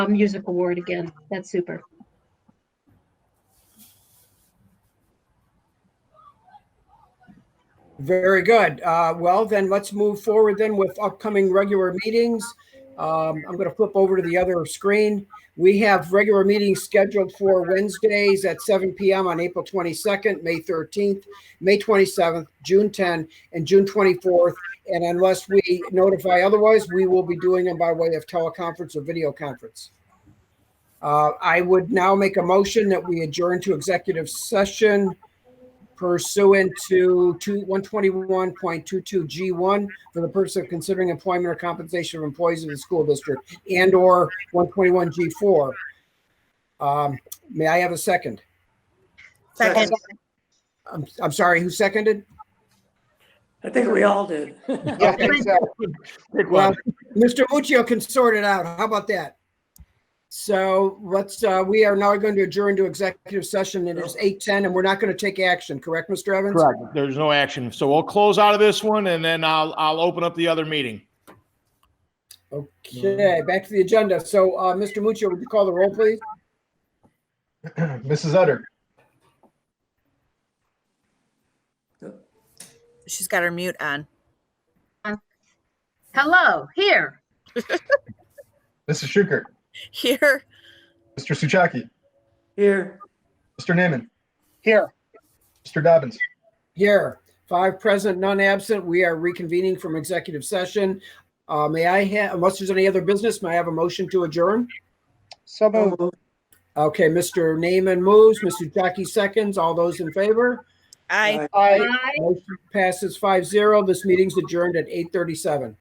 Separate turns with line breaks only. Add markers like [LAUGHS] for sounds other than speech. music award again. That's super.
Very good. Uh, Well, then let's move forward then with upcoming regular meetings. Um, I'm going to flip over to the other screen. We have regular meetings scheduled for Wednesdays at 7 PM on April 22nd, May 13th, May 27th, June 10th, and June 24th. And unless we notify otherwise, we will be doing them by way of teleconference or video conference. Uh, I would now make a motion that we adjourn to executive session pursuant to two- 121.22G1 for the purpose of considering employment or compensation of employees of the school district and/or 121G4. Um, May I have a second?
Second.
I'm, I'm sorry, who seconded?
I think we all did.
Okay, so- Well, Mr. Uh, Muccio can sort it out. How about that? So let's, uh, we are now going to adjourn to executive session. It is 8:10 and we're not going to take action, correct, Mr. Evans?
Correct. There's no action. So we'll close out of this one and then I'll, I'll open up the other meeting.
Okay, back to the agenda. So, uh, Mr. Muccio, would you call the roll, please?
[CLEARS THROAT] Mrs. Utter,
She's got her mute on. [LAUGHS]
Hello, here.
Mrs. Schuker,
Here,
Mr. Suchaki,
Here,
Mr. Naaman,
Here.
Mr. Dobbins.
Here, five present, none absent. We are reconvening from executive session. Uh, may I have, unless there's any other business, may I have a motion to adjourn?
So
Okay, Mr. Naaman moves, Mr. Jackie seconds. All those in favor?
I.
Aye.
Aye.
Bye.
Motion passes five zero. This meeting's adjourned at eight thirty-seven.